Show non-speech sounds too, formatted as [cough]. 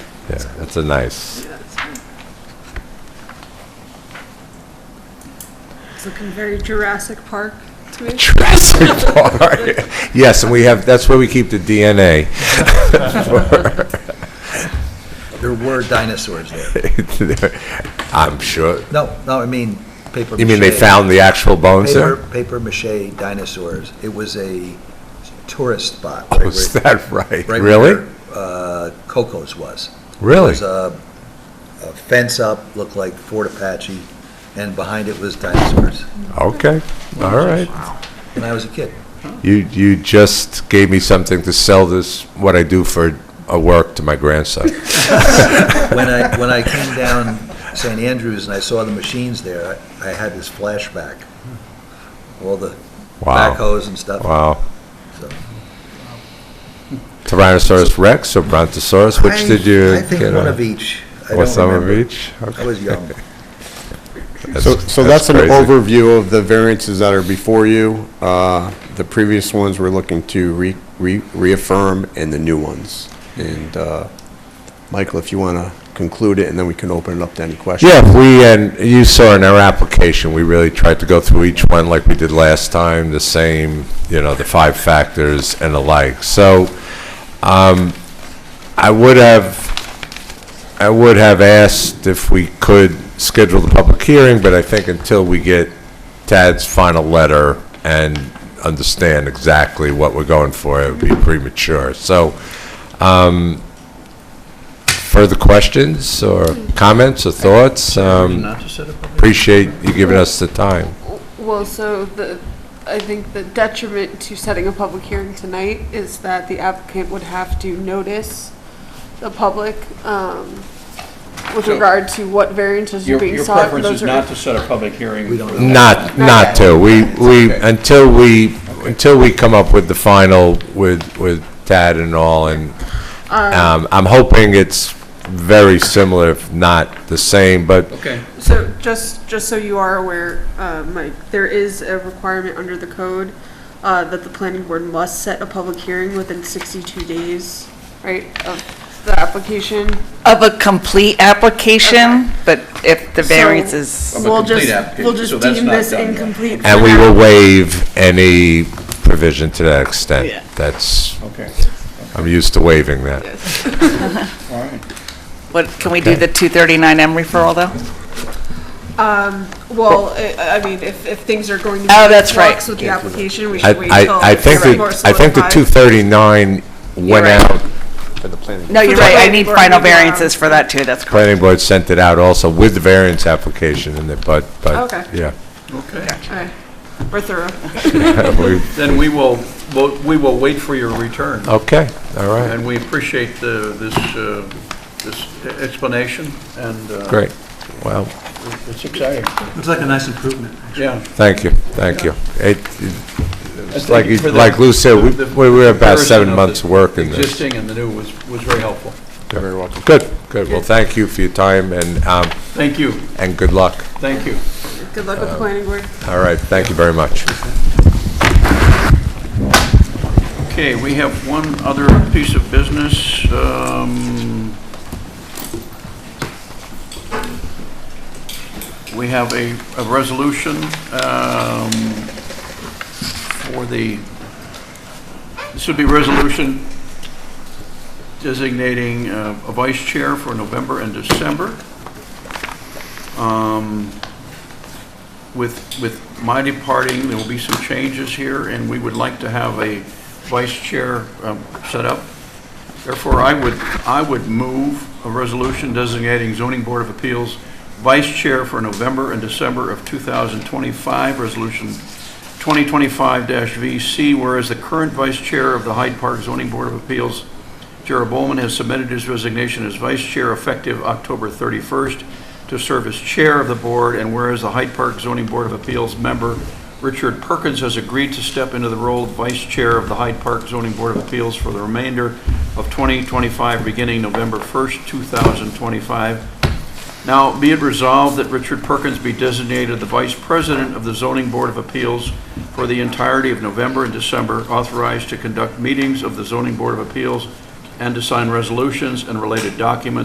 Yeah, that's a nice, It's looking very Jurassic Park to me. Jurassic [laughs] Park. Yes, and we have, that's where we keep the DNA. There were dinosaurs there. [laughs] I'm sure, No, no, I mean paper. you mean they mache- found the actual bones Paper, there? paper mache dinosaurs. It was a tourist spot. [laughs] Oh, right is where- that right? right Really? where, Uh, Coco's was. It Really? was a a fence up, looked like Fort Apache, and behind it was dinosaurs. Okay, all right. When I was a kid. You, you just gave me something to sell this, what I do for a work to my [laughs] grandson. When I, when I came down St. Andrews and I saw the machines there, I I had this flashback. All the Wow. backhoes and stuff. Wow. So- Tyrannosaurus Rex or Brontosaurus, which did you? I I think get one a- of each. I Or don't some of remember. each? I was young. So, so that's an overview of the variances that are before you. Uh, The previous ones we're looking to re- re- reaffirm, and the new ones. And uh, Michael, if you want to conclude it, and then we can open it up to any questions. Yeah, we, and you saw in our application, we really tried to go through each one like we did last time, the same, you know, the five factors and the like. So, um, I would have, I would have asked if we could schedule the public hearing, but I think until we get Tad's final letter and understand exactly what we're going for, it would be premature. So, further questions or comments or thoughts? Um, Appreciate you giving us the time. Well, so the, I think the detriment to setting a public hearing tonight is that the applicant would have to notice the public um, with So- regard to what variances are Your, being your sought. preference Those is are- not to set a public hearing? We don't for know. that. Not, not to, we, we, until we, until we come up with the final with, with Tad and all, and, um, I'm hoping it's very similar, if not the same, but, Okay, So just, just so you are aware, uh, Mike, there is a requirement under the code uh, that the planning board must set a public hearing within 62 days, right, of the application. Of a complete Okay. application, but if the So variance is, Of a We'll complete just, application, we'll so just that's deem not this done yet. incomplete. for and we now. will waive any provision to that extent. That's, okay, I'm used to waiving that. all right. what, can we do the 239M referral, though? Well, I I mean, if, if things are going to be. Oh, that's right. flux With the application, we I, should wait till. I, I think it's more that, I think the solidified. two thirty-nine went You're right. out No, you're For the right, I planning need board final to do, um, variances for that, too, that's correct. planning board sent it out also with the variance application in it, but, but, Okay. yeah. All right. We're thorough. We- Then we will, we'll- we will wait for your [laughs] return, Okay, all right, and we appreciate the- this, uh, this explanation, and uh, great. Well, it's exciting, Looks like a nice improvement. yeah. thank you, thank you. It, It's like you- like Lou said, we- we were about seven months' work in this. Existing and the new was, was very helpful. very well. Good, good. Well, thank you for your time and, um, Thank you, and good luck. thank you. Good luck with Um, the planning board. All right, thank you very much. Okay, we have one other piece of business. um, We have a, a resolution um, for the, this would be resolution designating uh, a vice chair for November and December. Um, with, with my departing, there will be some changes here, and we would like to have a vice chair um, set up. Therefore, I would, I would move a resolution designating zoning board of appeals vice chair for November and December of 2025, resolution 2025-VC, whereas the current vice chair of the Hyde Park Zoning Board of Appeals, Jared Bowman, has submitted his resignation as vice chair effective October 31st to serve as chair of the board, and whereas the Hyde Park Zoning Board of Appeals member Richard Perkins has agreed to step into the role of vice chair of the Hyde Park Zoning Board of Appeals for the remainder of 2025, beginning November 1st, 2025, now, be it resolved that Richard Perkins be designated the Vice President of the Zoning Board of Appeals for the entirety of November and December, authorized to conduct meetings of the Zoning Board of Appeals and to sign resolutions and related documents